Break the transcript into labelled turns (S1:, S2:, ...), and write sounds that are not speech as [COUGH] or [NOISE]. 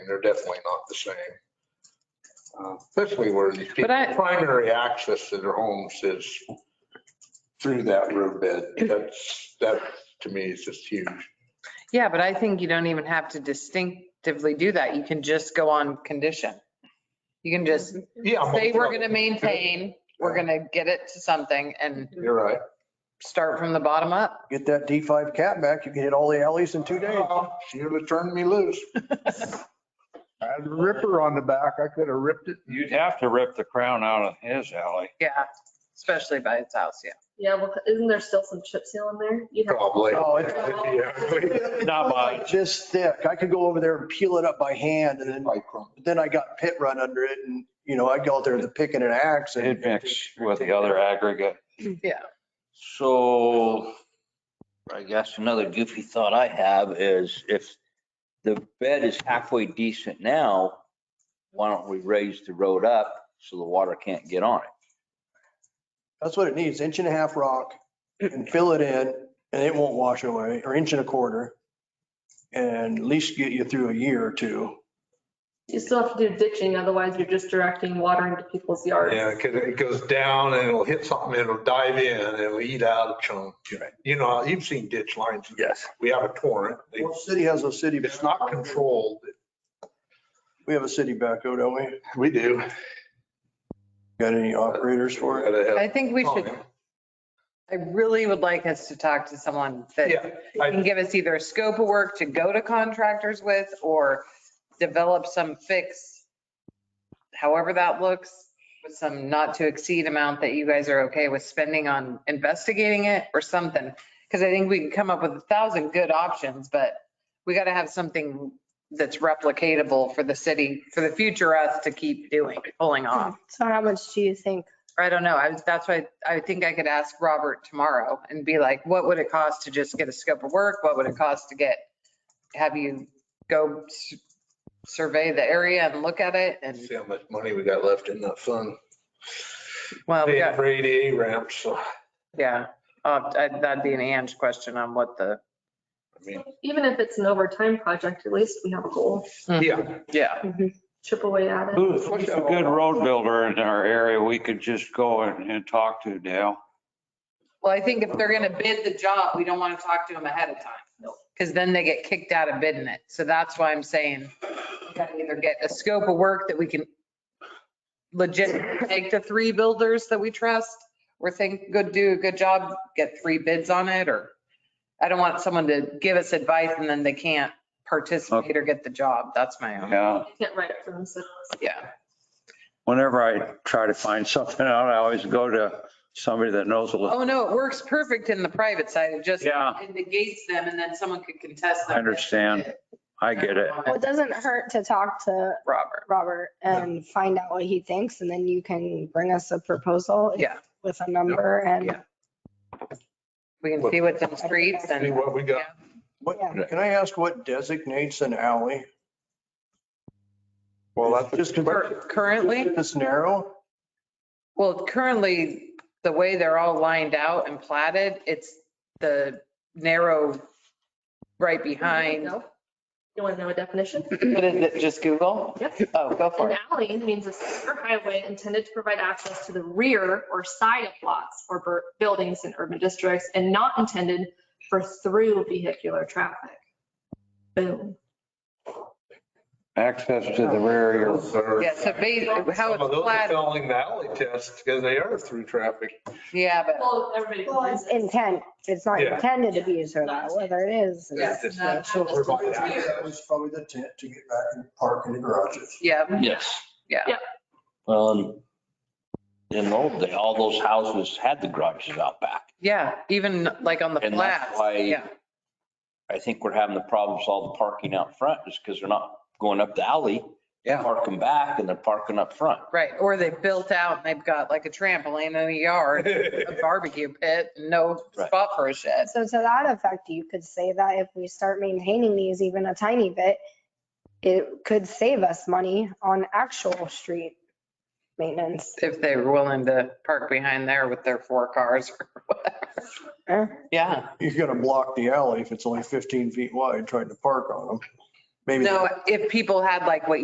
S1: And they're definitely not the same. Uh, Especially where these people,
S2: I-
S1: primary access to their homes is through that roadbed. That's, that to me is just huge.
S2: Yeah, but I think you don't even have to distinctively do that. You can just go on condition. You can just
S1: Yeah. I'm
S2: say,
S1: okay.
S2: we're going to maintain, we're going to get it to something and
S1: You're right.
S2: start from the bottom up.
S3: Get that D5 cat back, you can hit all the alleys in two days.
S1: Uh, She'd have turned me
S2: [LAUGHS]
S1: loose.
S4: I had a ripper on the back. I could have ripped it.
S5: You'd have to rip the crown out of his alley.
S2: Yeah, especially by its house, yeah.
S6: Yeah, well, isn't there still some chip seal in there? You'd have-
S1: Probably. [LAUGHS]
S3: Oh, it's
S5: Not
S3: like
S5: much.
S3: this thick. I could go over there and peel it up by hand and then,
S1: Micro.
S3: then I got pit run under it and, you know, I'd go out there with a pick and an axe and.
S5: It'd mix with the other aggregate.
S7: So I guess another goofy thought I have is if the bed is halfway decent now, why don't we raise the road up so the water can't get on it?
S3: That's what it needs, inch and a half rock and fill it in and it won't wash away, or inch and a quarter. And at least get you through a year or two.
S6: You still have to do ditching, otherwise you're just directing water into people's yards.
S1: Yeah, because it goes down and it'll hit something, it'll dive in, and it'll eat out a chunk. You know, you've seen ditch lines.
S3: Yes.
S1: We have a torrent. They-
S3: Well, City has a city,
S1: It's not controlled.
S3: we have a city backhoe, don't we?
S1: We do.
S3: Got any operators for it?
S2: I think we should, I really would like us to talk to someone
S1: Oh, Yeah,
S2: that can
S1: I-
S2: give us either a scope of work to go to contractors with or develop some fix, however that looks, with some not to exceed amount that you guys are okay with spending on investigating it or something. Because I think we can come up with a thousand good options, but we got to have something that's replicatable for the city, for the future us to keep doing, pulling off.
S8: So how much do you think?
S2: I don't know. I was, that's why I think I could ask Robert tomorrow and be like, what would it cost to just get a scope of work? What would it cost to get, have you go s- survey the area and look at it? And,
S1: See how much money we got left in that fund.
S2: well, we
S1: Paying
S2: got-
S1: For ADA ramps, so, I
S2: yeah, Uh, I- that'd be an Ange question on what the,
S1: mean,
S6: Even if it's an overtime project, at least we have a goal,
S1: yeah.
S2: yeah.
S6: chip away at it.
S5: Who's who's a good road builder in our area we could just go and, and talk to, Dale?
S2: Well, I think if they're going to bid the job, we don't want to talk to them ahead of time. Because then they get kicked out of bidding it. So that's why I'm saying we gotta either get a scope of work that we can legit take the three builders that we trust or think, good, do a good job, get three bids on it, or I don't want someone to give us advice and then they can't participate or get the job. That's my own,
S5: Yeah.
S6: You can't write it for themselves.
S2: yeah.
S5: Whenever I try to find [LAUGHS] something out, I always go to somebody that knows a little.
S2: Oh, no, it works perfect in the private side. It just
S5: Yeah.
S2: negates them and then someone could contest them.
S5: I understand. I get it.
S8: Well, it doesn't hurt to talk to
S2: Robert.
S8: Robert and find out what he thinks and then you can bring us a proposal.
S2: Yeah.
S8: With a number and,
S2: Yeah. We can see what's in the streets
S1: See
S2: and
S1: what we got.
S3: What, can I ask what designates an alley?
S1: Well, that's.
S3: Just
S2: Cur- currently,
S3: This narrow?
S2: well, currently, the way they're all lined out and platted, it's the narrow right behind.
S6: No. You want to know a definition?
S2: What is it, just Google?
S6: Yep.
S2: Oh, go for
S6: An
S2: it.
S6: alley means a street or highway intended to provide access to the rear or side of lots or bur- buildings in urban districts and not intended for through vehicular traffic. Boom.
S5: Access to the rear of your
S2: Yeah, so ba- how
S1: Some of
S2: it's
S1: those are
S2: platted,
S1: failing the alley tests because they are through traffic.
S2: yeah, but
S6: Well, everybody.
S8: well, it's intent. It's not
S1: Yeah.
S8: intended to be used for that, whether it is.
S2: Yeah.
S1: It's-
S2: not-
S3: So
S1: it's probably-
S3: That was probably the tent to get back and park in the garages.
S2: yeah,
S7: Yes.
S2: Yeah.
S6: Yep.
S7: Um, in old day, all those houses had the garages out back.
S2: yeah, even like on the
S7: And that's
S2: flats.
S7: why-
S2: Yeah,
S7: I think we're having the problems, all the parking out front is because they're not going up the alley.
S5: Yeah.
S7: Parking back and they're parking up front.
S2: right. Or they built out and they've got like a trampoline in the yard, a barbecue pit, no
S7: Right.
S2: spot for a shed.
S8: So to that effect, you could say that if we start maintaining these even a tiny bit, it could save us money on actual street maintenance.
S2: if they were willing to park behind there with their four cars or whatever.
S8: Eh?
S2: Yeah,
S3: You're gonna block the alley if it's only 15 feet wide trying to park on them. Maybe.
S2: No, if people had like what